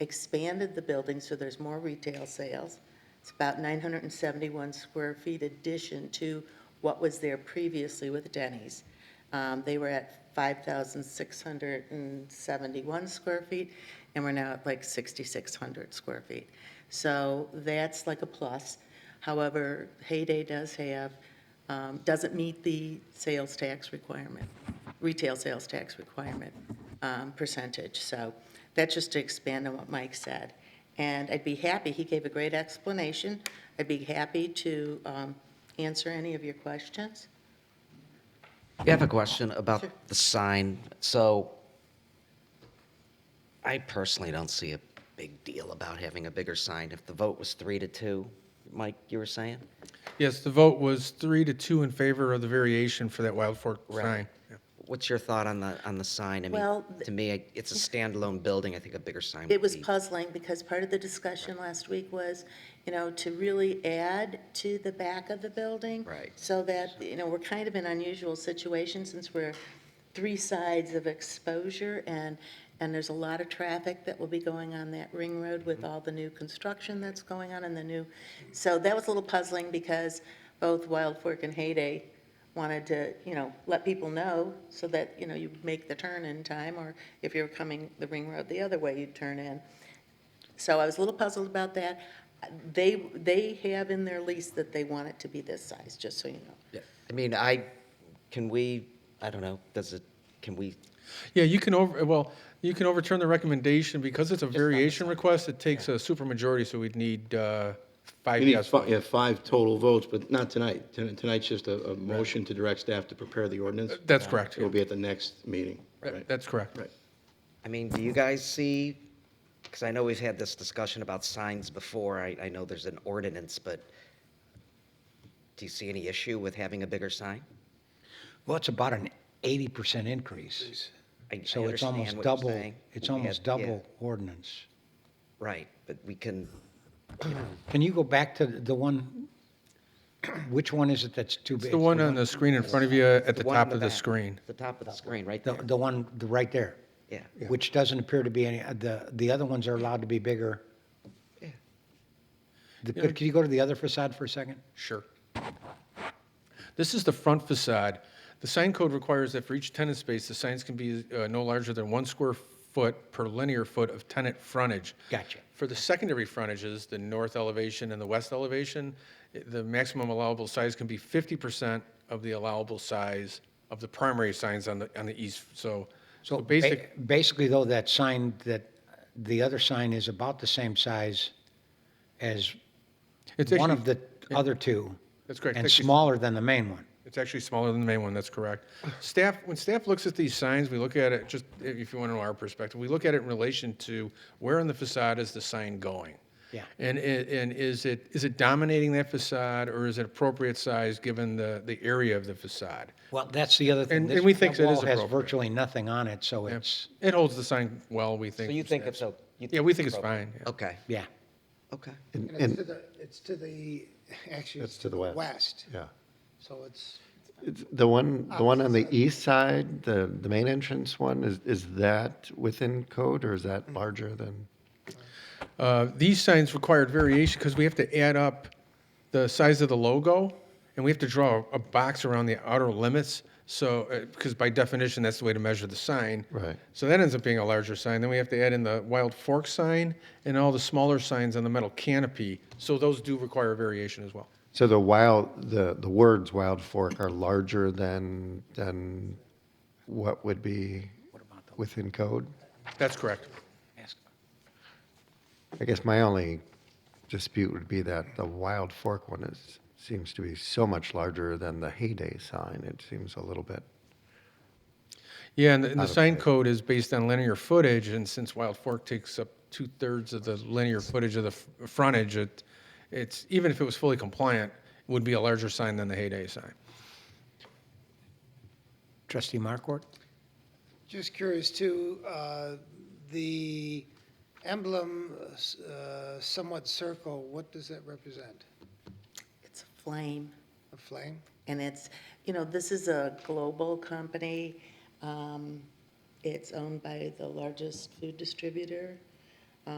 expanded the building, so there's more retail sales. It's about 971 square feet addition to what was there previously with Denny's. Um, They were at 5,671 square feet, and we're now at like 6,600 square feet. So that's like a plus. However, Hayday does have, um, doesn't meet the sales tax requirement, retail sales tax requirement um, percentage. So that's just to expand on what Mike said. And I'd be happy, he gave a great explanation. I'd be happy to um, answer any of your questions. I have a question about Sure. the sign. So I personally don't see a big deal about having a bigger sign. If the vote was three to two, Mike, you were saying? Yes, the vote was three to two in favor of the variation for that Wild Fork sign. Yeah. What's your thought on the, on the sign? I mean, Well, th- to me, I- it's a standalone building. I think a bigger sign It would was be. puzzling because part of the discussion last week was, you know, to really add to the back of the building. Right. So that, you know, we're kind of in unusual situation since we're three sides of exposure and, and there's a lot of traffic that will be going on that ring road with all the new construction that's going on and the new. So that was a little puzzling because both Wild Fork and Hayday wanted to, you know, let people know so that, you know, you make the turn in time, or if you're coming the ring road the other way, you'd turn in. So I was a little puzzled about that. They, they have in their lease that they want it to be this size, just so you know. Yeah. I mean, I, can we, I don't know, does it, can we, Yeah, you can over, well, you can overturn the recommendation because it's a variation request. It takes a supermajority, so we'd need uh, five We need yes five, votes. yeah, five total votes, but not tonight. Ton- Tonight's just a, a motion to direct staff to prepare the ordinance. That's correct. It will be at the next meeting, That- right? That's correct. Right. I mean, do you guys see, because I know we've had this discussion about signs before. I, I know there's an ordinance, but do you see any issue with having a bigger sign? Well, it's about an eighty percent increase. I- I So it's understand almost what you're double, saying. it's We almost have- yeah, double ordinance. Right, but we can, Can you go back to the one, which one is it that's too big? It's the one on the screen in front of you at the one on top of the back, screen. The top of the screen, right The, there. the one, the, right there. Yeah. Which doesn't appear to be any, uh, the, the other ones are allowed to be bigger. Yeah. The- Could could you go to the other facade for a second? Sure. This is the front facade. The sign code requires that for each tenant space, the signs can be uh, no larger than one square foot per linear foot of tenant frontage. Gotcha. For the secondary frontages, the north elevation and the west elevation, i- the maximum allowable size can be 50% of the allowable size of the primary signs on the, on the east. So, so So basic, ba- basically though, that sign, that, the other sign is about the same size as It's one actually- of the other two. That's correct. And Actually- smaller than the main one. It's actually smaller than the main one, that's correct. Staff, when staff looks at these signs, we look at it, just if you want to know our perspective, we look at it in relation to where on the facade is the sign going? Yeah. And, i- and is it, is it dominating that facade, or is it appropriate size given the, the area of the facade? Well, that's the other thing. And- This- and we think that is That wall has appropriate. virtually nothing on it, so it's, It holds the sign well, we think. So you from think staff. it's, o- you Yeah, think, we think it's fine. yeah. okay, yeah. okay. And it's to the, it's to the, actually. It's to the west. West, Yeah. so it's, It's- The one, the one on the east side, the, the main entrance one, is, is that within code or is that larger than? Uh, These signs required variation because we have to add up the size of the logo, and we have to draw a box around the outer limits. So, uh, because by definition, that's the way to measure the sign. Right. So that ends up being a larger sign. Then we have to add in the wild fork sign and all the smaller signs on the metal canopy. So those do require variation as well. So the wild, the, the words Wild Fork are larger than, than what would be within code? That's correct. I guess my only dispute would be that the Wild Fork one is, seems to be so much larger than the Heyday sign. It seems a little bit, Yeah, and the, and the Out of sign place. code is based on linear footage, and since Wild Fork takes up two-thirds of the linear footage of the f- frontage, it, it's, even if it was fully compliant, would be a larger sign than the Heyday sign. Trustee Markwart? just curious too, uh, the emblem, uh, somewhat circle, what does that represent? It's a flame. A flame? And it's, you know, this is a global company. Um, It's owned by the largest food distributor